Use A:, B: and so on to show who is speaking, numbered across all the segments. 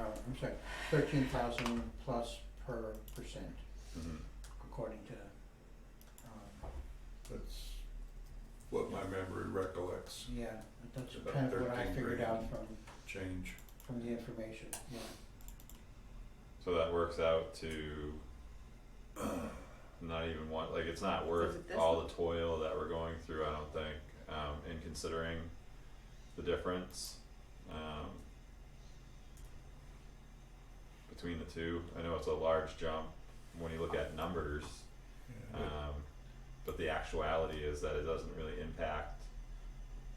A: Uh, I'm sorry, thirteen thousand plus per percent
B: Mm-hmm.
C: Mhm.
A: according to, um,
C: That's what my memory recollects,
A: yeah, that's
C: About
A: kind of what I
C: 13
A: figured
C: grand.
A: out from,
C: change.
A: from the information, yeah.
B: So that works out to not even one, like it's not worth
D: it this
B: all
D: one?
B: the toil that we're going through, I don't think, um, in considering the difference, um, between the two. I know it's a large jump when you look at numbers,
C: Yeah, but-
B: um, but the actuality is that it doesn't really impact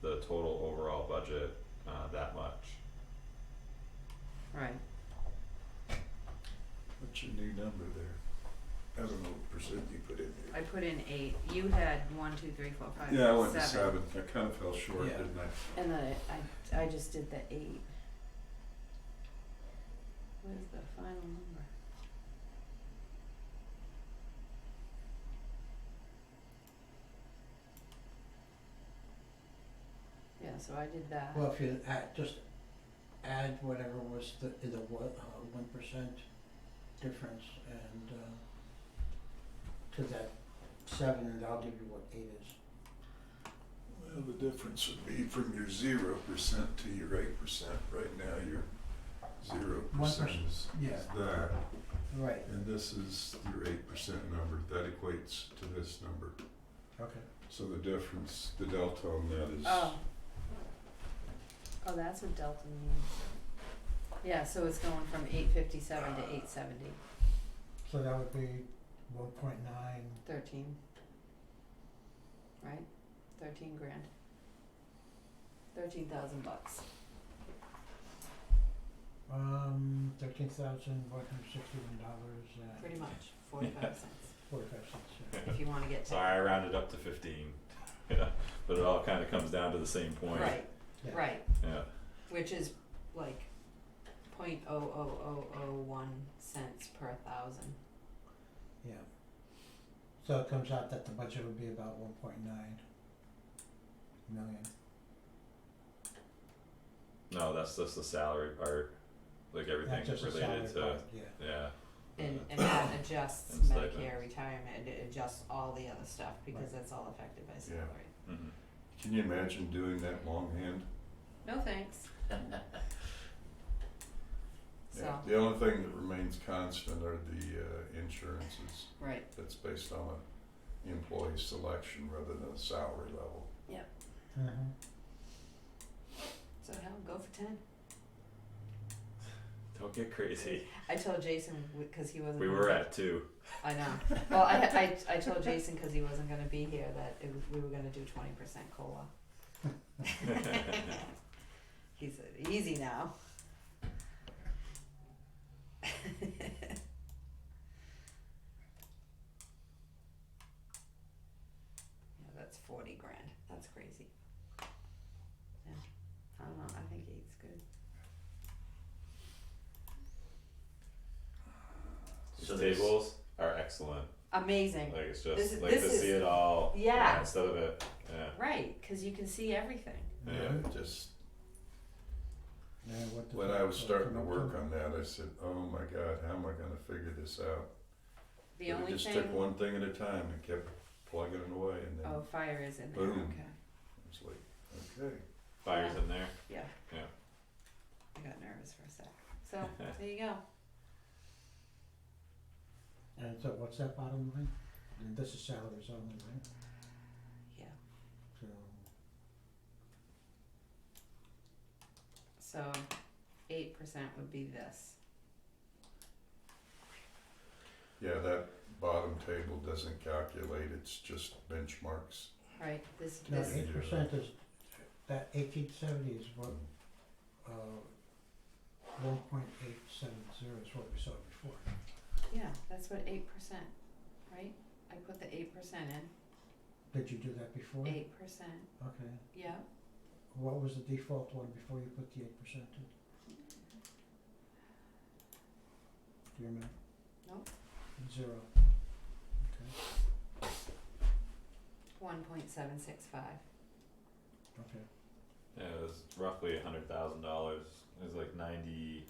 B: the total overall budget, uh, that much.
D: Right.
C: What's your new number there? I don't know what percent you put in
D: I
C: there.
D: put in eight. You had one, two, three, four, five, six,
C: Yeah, I went to
D: seven.
C: seven, I kinda fell short,
A: Yeah.
C: didn't I?
D: And then I, I, I just did the eight. What is the final number? Yeah, so I did that.
A: Well, if you add, just add whatever was the, the one, uh, one percent difference and, uh, to that seven, and I'll give you what eight is.
C: Well, the difference would be from your zero percent to your eight percent. Right now, your zero
A: One
C: percent
A: percent,
C: is
A: yeah.
C: is that,
A: Right,
C: and this is your eight percent number. That equates to this number.
A: okay.
C: So the difference, the delta on that is.
D: Oh. Oh, that's what delta means. Yeah, so it's going from eight fifty-seven to eight seventy,
A: So that would be one point nine,
D: thirteen. Right? Thirteen grand. Thirteen thousand bucks.
A: um, thirteen thousand one hundred sixty-one dollars and
D: Pretty much, forty-five cents,
A: forty-five cents,
D: if you wanna get to.
B: Sorry, I rounded up to fifteen, but it all kinda comes down to the same point.
D: Right,
A: yeah.
D: right,
B: Yeah,
D: which is like point oh oh oh oh one cents per thousand.
A: Yeah. So it comes out that the budget would be about one point nine million.
B: no, that's just the salary part, like everything
A: Not just the salary
B: related to,
A: part, yeah.
B: yeah.
D: And and that adjusts
B: And stipends.
D: Medicare, retirement, it adjusts all the other stuff, because that's all affected by salary.
B: Mhm.
C: Can you imagine doing that longhand?
D: No thanks. So,
C: The only thing that remains constant are the uh, insurances.
D: right,
C: That's based on a employee selection rather than a salary level.
A: Mhm.
D: so hell, go for ten.
B: Don't get crazy.
D: I told Jason, w- cause he wasn't.
B: We were at two.
D: I know, well, I I I told Jason, cause he wasn't gonna be here, that it was, we were gonna do twenty percent COLA. He said, easy now. Yeah, that's forty grand, that's crazy. Yeah, I don't know, I think eight's good.
B: These
E: So there's-
B: tables are excellent.
D: Amazing.
B: Like it's
D: This
B: just
D: is-
B: like to
D: this
B: see
D: is-
B: it all.
D: yeah.
B: Instead of it, yeah.
D: Right, because you can see everything.
C: Yeah, it just,
A: Yeah, what does
C: when
A: that
C: I was
A: come
C: starting to
A: up
C: work on that, I said, oh my God, how am I gonna figure this out?
D: The
C: But
D: only
C: It just
D: thing.
C: took one thing at a time and kept plugging it away and then
D: Oh, fire is in there.
C: Boom.
D: Okay.
C: it's like, okay.
B: Fires in there.
D: Yeah.
B: Yeah.
D: I got nervous for a sec. So there you go.
A: And so what's that bottom line? And this is salaries only, right?
D: Yeah.
A: So,
D: So eight percent would be this.
C: Yeah, that bottom table doesn't calculate, it's just benchmarks.
D: Right? This
A: no,
D: this
C: uh,
A: eight percent is, that eighteen seventy is what,
C: Mm.
A: uh, one point eight seven zero is what we saw before.
D: yeah, that's what eight percent, right? I put the eight percent in.
A: Did you do that before?
D: Eight percent.
A: Okay.
D: Yeah.
A: What was the default one before you put the eight percent in? Do you remember?
D: Nope.
A: Zero.
D: One point seven six five.
A: Okay.
B: Yeah, it was roughly a hundred thousand dollars. It was like ninety